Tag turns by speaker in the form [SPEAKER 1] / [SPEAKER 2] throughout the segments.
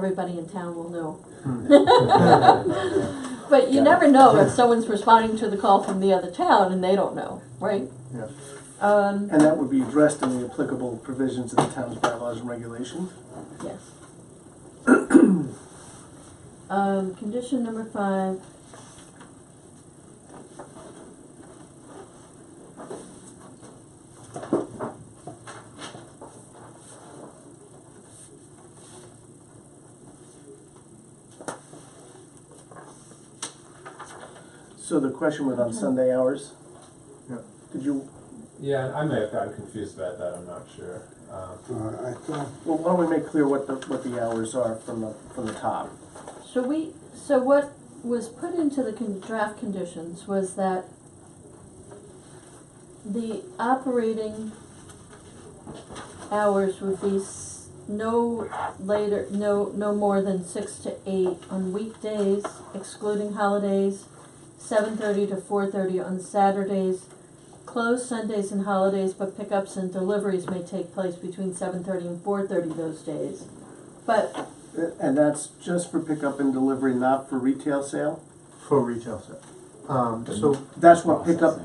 [SPEAKER 1] everybody in town will know. But you never know if someone's responding to the call from the other town and they don't know, right?
[SPEAKER 2] Yeah.
[SPEAKER 1] Um,
[SPEAKER 2] And that would be addressed in the applicable provisions of the town's bylaws and regulations.
[SPEAKER 1] yes. Um, condition number five.
[SPEAKER 2] So the question was on Sunday hours?
[SPEAKER 3] Yeah.
[SPEAKER 2] Did you,
[SPEAKER 4] Yeah, I may have gotten confused about that, I'm not sure. Um,
[SPEAKER 3] Uh, I thought,
[SPEAKER 2] well, why don't we make clear what the, what the hours are from the, from the top?
[SPEAKER 1] So we, so what was put into the con- draft conditions was that the operating hours would be s- no later, no, no more than six to eight on weekdays, excluding holidays, seven thirty to four thirty on Saturdays. Close Sundays and holidays, but pickups and deliveries may take place between seven thirty and four thirty those days. But
[SPEAKER 2] Uh, And that's just for pickup and delivery, not for retail sale?
[SPEAKER 3] for retail sale. Um, so
[SPEAKER 2] That's what pickup,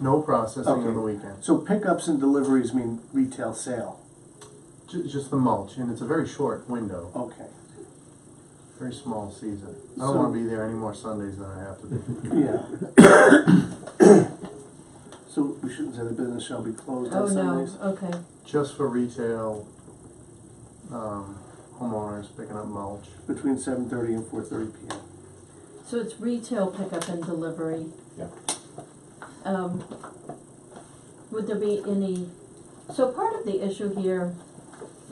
[SPEAKER 3] no processing on
[SPEAKER 2] Okay.
[SPEAKER 3] the weekends,
[SPEAKER 2] so pickups and deliveries mean retail sale,
[SPEAKER 3] ju- just the mulch, and it's a very short window,
[SPEAKER 2] okay.
[SPEAKER 3] very small season. I don't
[SPEAKER 2] So-
[SPEAKER 3] wanna be there any more Sundays than I have to be.
[SPEAKER 2] Yeah. So we shouldn't say the business shall be closed
[SPEAKER 1] Oh,
[SPEAKER 2] on
[SPEAKER 1] no,
[SPEAKER 2] Sundays?
[SPEAKER 1] okay,
[SPEAKER 3] Just for retail, um, homeowners picking up mulch.
[SPEAKER 2] Between seven thirty and four thirty P M.
[SPEAKER 1] so it's retail pickup and delivery.
[SPEAKER 4] Yeah.
[SPEAKER 1] Um, would there be any, so part of the issue here,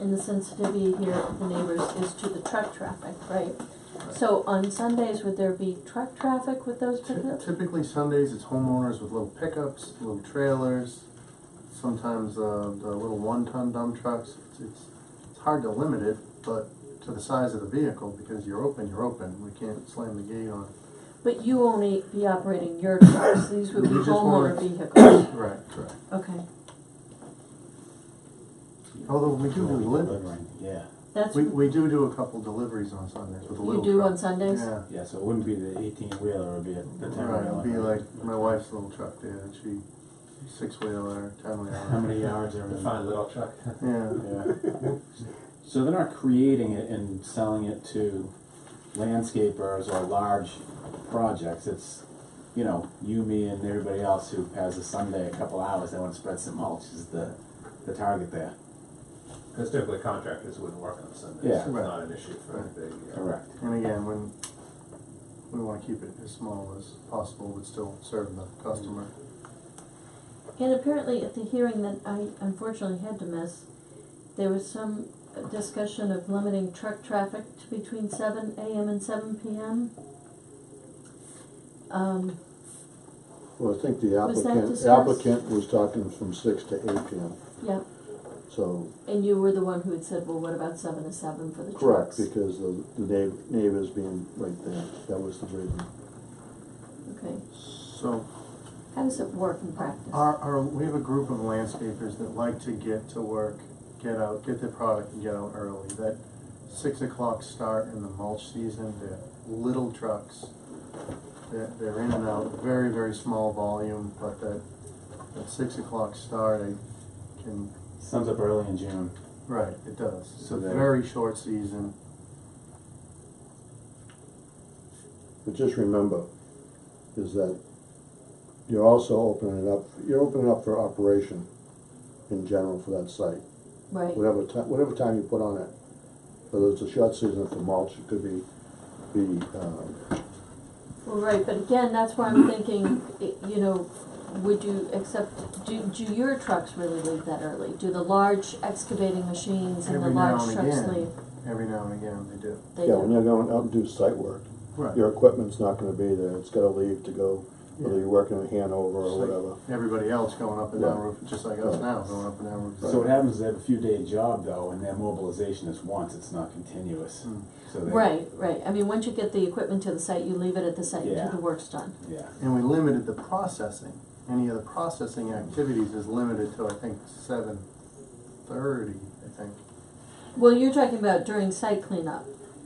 [SPEAKER 1] and the sensitivity here of the neighbors, is to the truck traffic, right? So on Sundays, would there be truck traffic with those
[SPEAKER 3] Ty-
[SPEAKER 1] pickups?
[SPEAKER 3] Typically Sundays, it's homeowners with little pickups, little trailers, sometimes, uh, the little one-ton dump trucks. It's- It's, it's hard to limit it, but to the size of the vehicle, because you're open, you're open, we can't slam the gate on.
[SPEAKER 1] But you only be operating your trucks, these would be
[SPEAKER 3] We just wanna-
[SPEAKER 1] homeowner vehicles,
[SPEAKER 3] Right, correct.
[SPEAKER 1] okay,
[SPEAKER 3] Although we do do deliveries.
[SPEAKER 5] Yeah,
[SPEAKER 1] that's,
[SPEAKER 3] We,
[SPEAKER 1] you
[SPEAKER 3] we do do a couple deliveries on Sundays with a little
[SPEAKER 1] do
[SPEAKER 3] truck.
[SPEAKER 1] on Sundays?
[SPEAKER 3] Yeah,
[SPEAKER 5] yeah, so it wouldn't be the eighteen wheeler, it would be a- the ten
[SPEAKER 3] right,
[SPEAKER 5] wheeler.
[SPEAKER 3] it'd be like my wife's little truck there, that she, six-wheeler,
[SPEAKER 5] How
[SPEAKER 3] ten-wheeler.
[SPEAKER 5] many yards are
[SPEAKER 4] The
[SPEAKER 5] in?
[SPEAKER 4] fine little truck.
[SPEAKER 3] Yeah,
[SPEAKER 5] Yeah. So they're not creating it and selling it to landscapers or large projects, it's, you know, you, me, and everybody else who has a Sunday, a couple hours, they wanna spread some mulch is the, the target there.
[SPEAKER 4] Because typically contractors wouldn't work on Sundays.
[SPEAKER 5] Yeah.
[SPEAKER 4] It's
[SPEAKER 3] Right.
[SPEAKER 4] not an issue for
[SPEAKER 3] Right.
[SPEAKER 4] the, uh,
[SPEAKER 5] Correct.
[SPEAKER 3] and again, when, we wanna keep it as small as possible, but still serve the customer.
[SPEAKER 1] And apparently at the hearing that I unfortunately had to miss, there was some discussion of limiting truck traffic to between seven AM and seven PM. Um,
[SPEAKER 6] Well, I think the
[SPEAKER 1] Was that
[SPEAKER 6] applicant,
[SPEAKER 1] discussed?
[SPEAKER 6] applicant was talking from six to eight PM,
[SPEAKER 1] yeah,
[SPEAKER 6] so,
[SPEAKER 1] and you were the one who had said, well, what about seven to seven for the
[SPEAKER 6] correct,
[SPEAKER 1] trucks?
[SPEAKER 6] because the, the neigh- neighbors being right there, that was the reason.
[SPEAKER 1] Okay,
[SPEAKER 3] So,
[SPEAKER 1] how does it work in practice?
[SPEAKER 3] our, our, we have a group of landscapers that like to get to work, get out, get their product and get out early. That six o'clock start in the mulch season, they're little trucks. They're, they're in and out, very, very small volume, but that, that six o'clock start, I can,
[SPEAKER 5] Sums up early in June.
[SPEAKER 3] right, it does. It's a
[SPEAKER 5] So that-
[SPEAKER 3] very short season.
[SPEAKER 6] But just remember, is that you're also opening it up, you're opening up for operation in general for that site.
[SPEAKER 1] Right,
[SPEAKER 6] Whatever ti- whatever time you put on it, whether it's a short season for mulch, it could be, be, um,
[SPEAKER 1] well, right, but again, that's why I'm thinking, i- you know, would you accept, do, do your trucks really leave that early? Do the large excavating machines and the
[SPEAKER 3] Every now
[SPEAKER 1] large
[SPEAKER 3] and
[SPEAKER 1] trucks
[SPEAKER 3] again.
[SPEAKER 1] leave?
[SPEAKER 3] Every now and again, they do.
[SPEAKER 1] They
[SPEAKER 6] yeah,
[SPEAKER 1] do.
[SPEAKER 6] when you're going out and do site work,
[SPEAKER 3] Right.
[SPEAKER 6] your equipment's not gonna be there, it's gotta leave to go, whether you're working in Hanover
[SPEAKER 3] Just
[SPEAKER 6] or
[SPEAKER 3] like
[SPEAKER 6] whatever.
[SPEAKER 3] Everybody else going up and down
[SPEAKER 6] Right.
[SPEAKER 3] roof, just like us
[SPEAKER 6] Right.
[SPEAKER 3] now, going up and down roof.
[SPEAKER 5] So what happens is they have a few day job though, and their mobilization is once, it's not continuous,
[SPEAKER 3] Mm.
[SPEAKER 5] so they.
[SPEAKER 1] Right, right, I mean, once you get the equipment to the site, you leave it at the site until
[SPEAKER 5] Yeah.
[SPEAKER 1] the work's done.
[SPEAKER 5] Yeah.
[SPEAKER 3] And we limited the processing. Any of the processing activities is limited to, I think, seven thirty, I think.
[SPEAKER 1] Well, you're talking about during site cleanup,